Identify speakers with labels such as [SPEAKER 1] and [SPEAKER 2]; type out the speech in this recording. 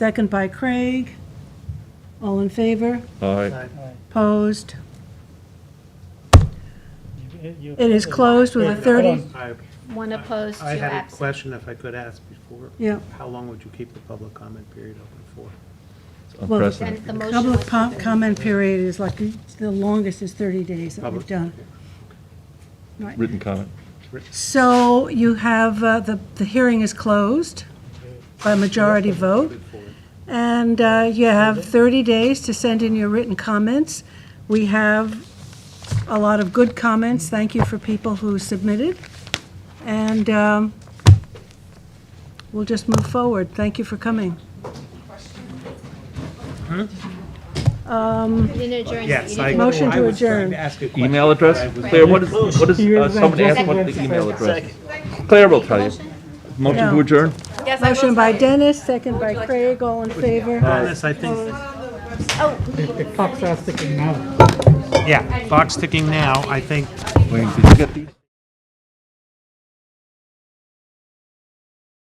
[SPEAKER 1] Second by Craig. All in favor?
[SPEAKER 2] Aye.
[SPEAKER 1] Opposed?
[SPEAKER 3] You- you-
[SPEAKER 1] It is closed with a
[SPEAKER 3] Wait, hold
[SPEAKER 1] 30
[SPEAKER 3] on.
[SPEAKER 4] I
[SPEAKER 5] One opposed, two
[SPEAKER 4] I had a
[SPEAKER 5] absent.
[SPEAKER 4] question if I could ask before.
[SPEAKER 1] Yeah.
[SPEAKER 4] How long would you keep the public comment period open for?
[SPEAKER 2] It's
[SPEAKER 1] Well,
[SPEAKER 5] And
[SPEAKER 2] Unprecedented.
[SPEAKER 5] the motion was
[SPEAKER 1] Public
[SPEAKER 5] for
[SPEAKER 1] po-
[SPEAKER 5] 30.
[SPEAKER 1] comment period is like, it's the longest is 30 days that we've
[SPEAKER 4] Public-
[SPEAKER 1] done. Right.
[SPEAKER 2] Written comment.
[SPEAKER 1] So you have, uh, the, the hearing is closed by majority vote,
[SPEAKER 4] Good for it.
[SPEAKER 1] and uh, you have 30 days to send in your written comments. We have a lot of good comments, thank you for people who submitted, and um, we'll just move forward. Thank you for coming.
[SPEAKER 5] Didn't adjourn, so you
[SPEAKER 4] Yes, I.
[SPEAKER 5] didn't-
[SPEAKER 1] Motion to
[SPEAKER 4] I was trying
[SPEAKER 1] adjourn.
[SPEAKER 4] to ask a question.
[SPEAKER 2] Email address?
[SPEAKER 4] I was-
[SPEAKER 2] Claire, what is, what is, uh, someone asked what the
[SPEAKER 5] Second.
[SPEAKER 2] email address is. Claire will tell you. Motion to
[SPEAKER 1] Yeah.
[SPEAKER 2] adjourn?
[SPEAKER 1] Motion by Dennis, second by Craig, all in favor.
[SPEAKER 4] Dennis, I think,
[SPEAKER 3] Clock's not sticking out.
[SPEAKER 4] yeah, clock's ticking now, I think
[SPEAKER 2] Wayne, did you get these?